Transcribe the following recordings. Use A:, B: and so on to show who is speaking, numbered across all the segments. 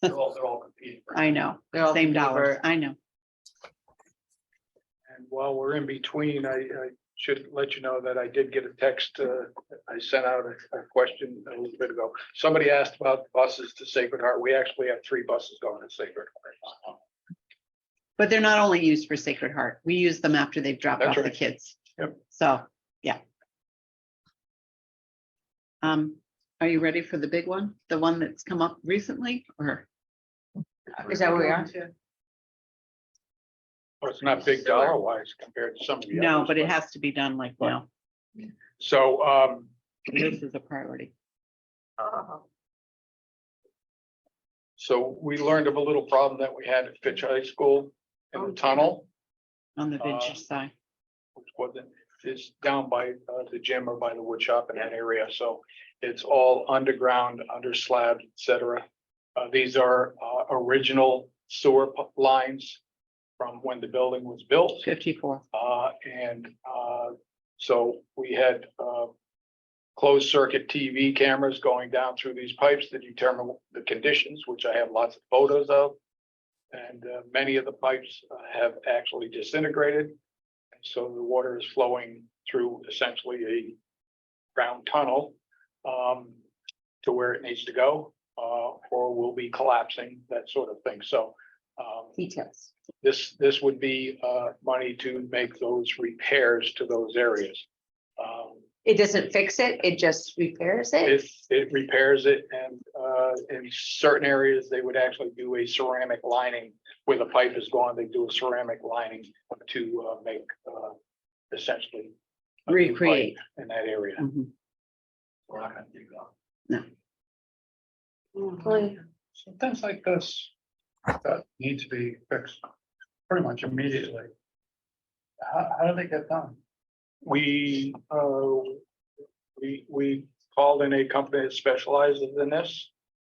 A: They're all, they're all competing. for-
B: I know,
C: They're all
B: same dollars,
C: paper.
B: I know.
A: And while we're in between, I, I should let you know that I did get a text, uh, I sent out a, a question a little bit ago. Somebody asked about buses to Sacred Heart. We actually have three buses going to Sacred Heart.
B: But they're not only used for Sacred Heart. We use them after they've dropped
A: That's
B: off the
A: right.
B: kids.
A: Yep.
B: So, yeah. Um, are you ready for the big one? The one that's come up recently or?
C: Is that where we are?
A: Well, it's not big dollar wise compared to some of the others.
B: No, but it has to be done like now.
A: So, um,
B: This is a priority.
D: Uh-huh.
A: so we learned of a little problem that we had at Fitch High School in
B: Oh.
A: the tunnel.
B: On the
A: Uh,
B: venture side.
A: which wasn't, is down by uh, the gym or by the wood shop in that area, so it's all underground, under slab, et cetera. Uh, these are uh, original sewer pu- lines from when the building was built.
B: Fifty-four.
A: Uh, and, uh, so we had, uh, closed circuit TV cameras going down through these pipes to determine the conditions, which I have lots of photos of. And, uh, many of the pipes uh, have actually disintegrated. And so the water is flowing through essentially a ground tunnel, um, to where it needs to go, uh, or will be collapsing, that sort of thing. So, um,
C: Details.
A: this, this would be uh money to make those repairs to those areas. Um,
C: It doesn't fix it, it just repairs it?
A: If it repairs it and uh in certain areas, they would actually do a ceramic lining where the pipe is gone, they do a ceramic lining to uh make uh essentially. a new pipe
B: Recreate.
A: In that area.
B: Mhm.
A: We're not gonna do that.
C: Hopefully.
A: So things like this that need to be fixed pretty much immediately. How, how do they get done? We, uh, we, we called in a company that specializes in this.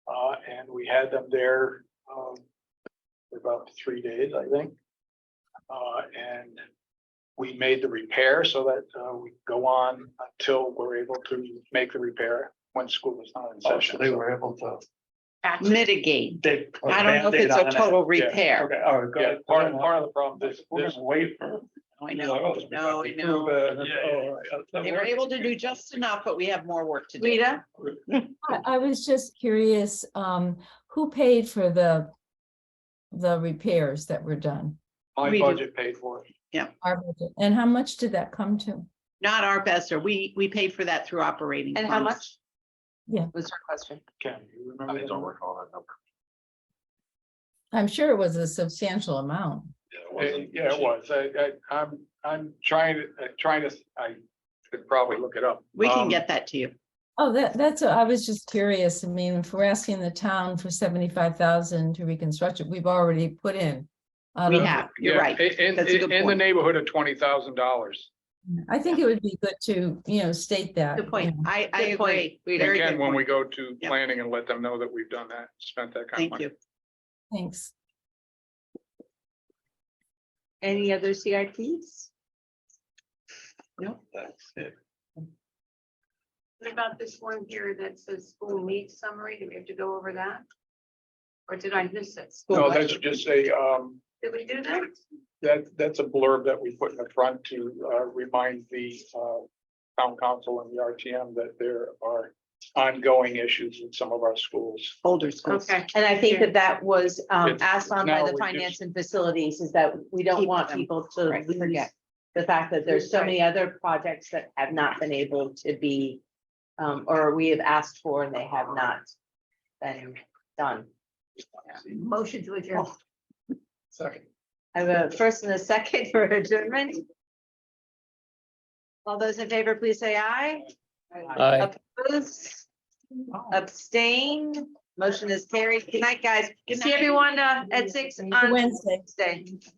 A: Uh, and we had them there, um, for about three days, I think. Uh, and we made the repair so that, uh, we go on until we're able to make the repair when school is not in
E: Oh,
A: session.
E: so they were able to.
B: Mitigate.
E: They.
A: Oh,
E: put
B: I don't know if
E: Band-Aid
B: it's
E: on
B: a
E: it.
B: total
A: Yeah,
B: repair.
E: Okay, all right,
A: Yeah,
E: good.
A: part, part of the problem,
E: This,
A: this,
E: this
A: this
E: wafer.
B: I know. No, I Oh, know. They were able to do just enough, but we have more work to do.
C: Rita?
F: I I was just curious, um, who paid for the, the repairs that were done?
A: My
B: We do.
A: budget paid for it.
F: Our budget, And how much did that come to?
B: Not our best, or we, we paid for that through operating.
C: And how
B: funds.
C: much?
F: Yeah.
C: Was her question.
A: Ken, you remember? that?
E: recall that number.
F: I'm sure it was a substantial amount.
A: It- Yeah, it was. I, I, I'm, I'm trying to, uh, trying to, I could probably look it up.
B: We
A: Um,
B: can get that to you.
F: Oh, that, that's, I was just curious. I mean, if we're asking the town for seventy-five thousand to reconstruct it, we've already put in. um, out
B: We
F: of-
B: have, you're
A: yeah,
B: right.
A: In,
B: That's a
A: in,
B: good
A: in the
B: point.
A: neighborhood of twenty thousand dollars.
F: I think it would be good to, you know, state that.
C: Good point.
F: you know.
B: I, I
C: Good point,
B: agree.
C: Rita.
B: Very
A: Again,
B: good
A: when we
B: point.
A: go to
B: Yep.
A: planning and let them know that we've done that, spent that kind of
B: Thank
A: money.
B: you.
F: Thanks.
C: Any other CIPs?
E: That's it.
D: What about this one here that says school needs summary? Do we have to go over that? Or did I miss it?
A: No, that's just a, um,
D: Did we do that?
A: that, that's a blurb that we put in the front to, uh, remind the, uh, town council and the RTM that there are ongoing issues in some of our schools.
B: Older schools.
D: Okay,
C: And I think that that was um
A: It's-
C: asked on
A: now
C: by
A: we
C: the
A: just-
C: finance and facilities is that we don't
B: Keep
C: want
B: them.
C: people to
B: Right,
C: lose
B: forget.
C: the fact that there's so many other projects that have not been able to be um, or we have asked for and they have not been done.
D: motion to adjourn.
E: Second.
C: I have a first and a second for adjournment. All those in favor, please say aye. Opposed, abstained, motion is carried. Good night, guys.
B: Good
C: See
B: night.
C: everyone uh, at six
F: See you
C: on
F: Wednesday.
C: Wednesday.